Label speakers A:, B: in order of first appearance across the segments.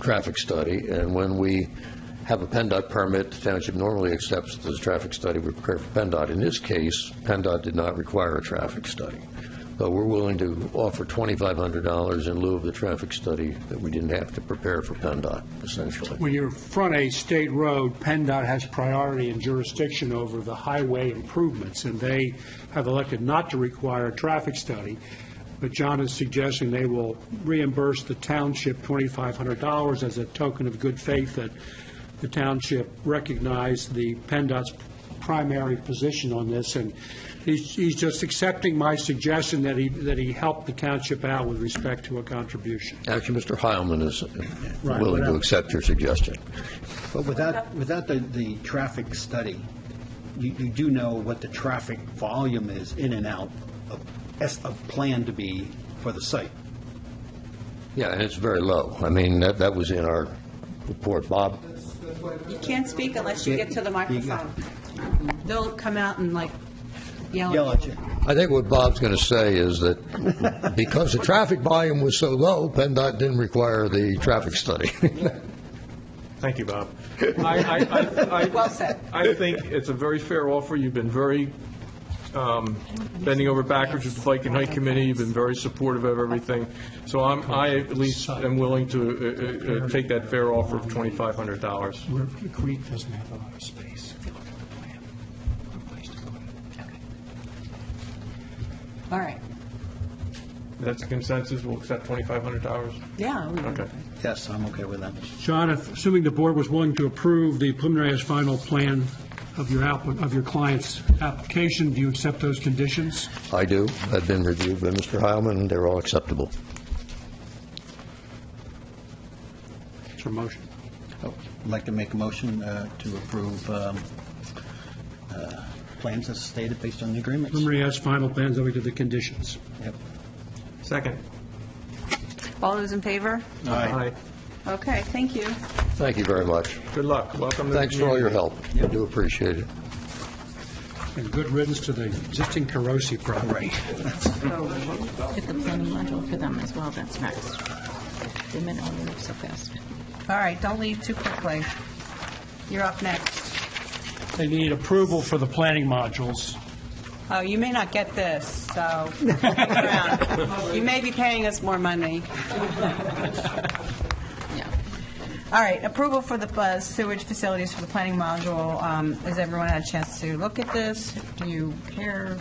A: traffic study, and when we have a PennDOT permit, the township normally accepts the traffic study we prepare for PennDOT. In this case, PennDOT did not require a traffic study. But we're willing to offer $2,500 in lieu of the traffic study that we didn't have to prepare for PennDOT, essentially.
B: When you're front a state road, PennDOT has priority and jurisdiction over the highway improvements, and they have elected not to require a traffic study. But John is suggesting they will reimburse the township $2,500 as a token of good faith that the township recognized the PennDOT's primary position on this, and he's he's just accepting my suggestion that he, that he help the township out with respect to a contribution.
A: Actually, Mr. Heilman is
B: Right,
A: willing to
B: whatever.
A: accept your suggestion.
C: But without, without the, the traffic study, you, you do know what the traffic volume is in and out of, as of plan to be for the site.
A: Yeah, and it's very low. I mean, that that was in our report. Bob?
D: You can't speak unless you get to the microphone. They'll come out and like
C: Yell
D: yell at
C: at
D: you.
C: you.
A: I think what Bob's going to say is that because the traffic volume was so low, PennDOT didn't require the traffic study.
E: Thank you, Bob. I- I- I- I-
D: Well said.
E: I think it's a very fair offer. You've been very um, bending over backwards with the Bike and Hike Committee. You've been very supportive of everything. So I'm, I at least am willing to uh, uh, uh, take that fair offer of $2,500.
B: Where the creek doesn't have a lot of space.
D: All right.
E: That's the consensus. We'll accept $2,500.
D: Yeah. we-
E: Okay.
C: Yes, I'm okay with that.
B: John, if- assuming the board was willing to approve the preliminary as final plan of your appli- of your client's application, do you accept those conditions?
A: I do. I've been reviewed by Mr. Heilman, and they're all acceptable.
B: It's your motion.
C: I'd like to make a motion uh, to approve um, uh, plans as stated based on the agreements.
B: Preliminary as final plans, then we do the conditions.
C: Yep.
E: Second.
D: All those in favor?
E: Aye.
D: Okay, thank you.
A: Thank you very much.
E: Good luck. Welcome to the
A: Thanks for all your
E: community.
A: help. I do appreciate it.
B: And good riddance to the existing Carosi property.
F: So Get the planning module for them as well, that's next. The men all move so fast.
D: All right, don't leave too quickly. You're up next.
B: They need approval for the planning modules.
D: Oh, you may not get this, so stick around. you may be paying us more money. All right, approval for the uh, sewage facilities for the planning module. Um, Has everyone had a chance to look at this? Do you care?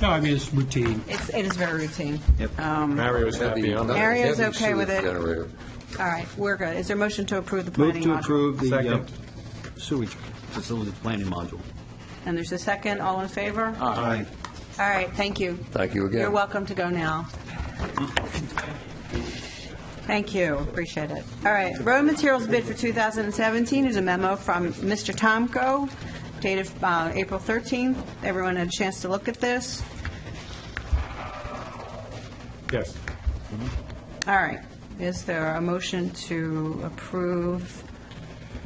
B: No, I mean, it's routine.
D: It's, it is very routine.
C: Yep.
D: Um,
E: Mario's happy on that.
D: Mario's
A: Heavy
D: okay with
A: sewage
D: it.
A: generator.
D: All right, we're good. Is there a motion to approve the planning
C: Move to
D: module?
C: approve the uh,
E: Second.
C: sewage facility planning module.
D: And there's a second, all in favor? All
C: Aye.
D: right, thank you.
A: Thank you again.
D: You're welcome to go now. Thank you, appreciate it. All right, road materials bid for 2017 is a memo from Mr. Tomko dated uh, April 13th. Everyone had a chance to look at this?
E: Yes.
D: All right. Is there a motion to approve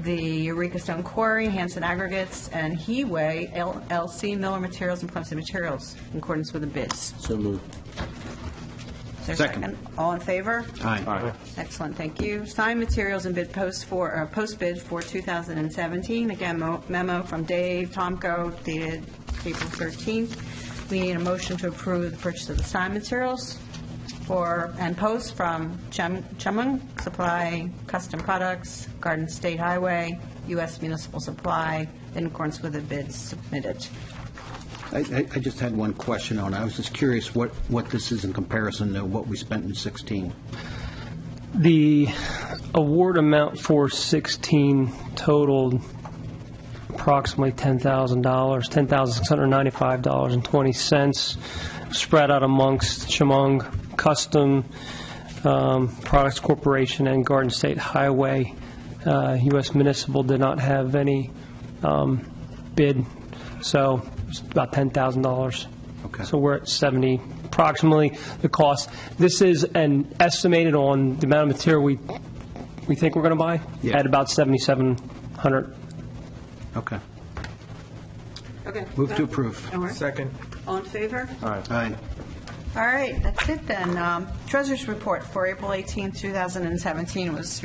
D: the Eureka Stone Quarry, Hanson Aggregates, and Heway LLC Miller Materials and Clemson Materials in accordance with the bids?
C: So moved.
D: Is there a
C: Second.
D: All in favor?
C: Aye.
D: Excellent, thank you. Sign materials and bid post for, uh, post bid for 2017. Again, mo- memo from Dave Tomko dated April 13th. We need a motion to approve the purchase of the sign materials for, and post from Chum- Chumung Supply Custom Products, Garden State Highway, U.S. Municipal Supply, in accordance with the bids submitted.
C: I- I, I just had one question on, it. I was just curious what, what this is in comparison to what we spent in 16.
G: The award amount for 16 totaled approximately $10,000, $10,695.20, spread out amongst Chemung Custom um, Products Corporation and Garden State Highway. Uh, U.S. Municipal did not have any um, bid, so it's about $10,000.
C: Okay.
G: So we're at 70, approximately the cost. This is an estimated on the amount of material we, we think we're going to buy?
C: Yeah.
G: At about 7,700.
C: Okay.
D: Okay.
C: Move to approve.
D: All right.
E: Second.
D: All in favor?
C: Aye.
D: All right, that's it then. Um, Treasurers' report for April 18, 2017 was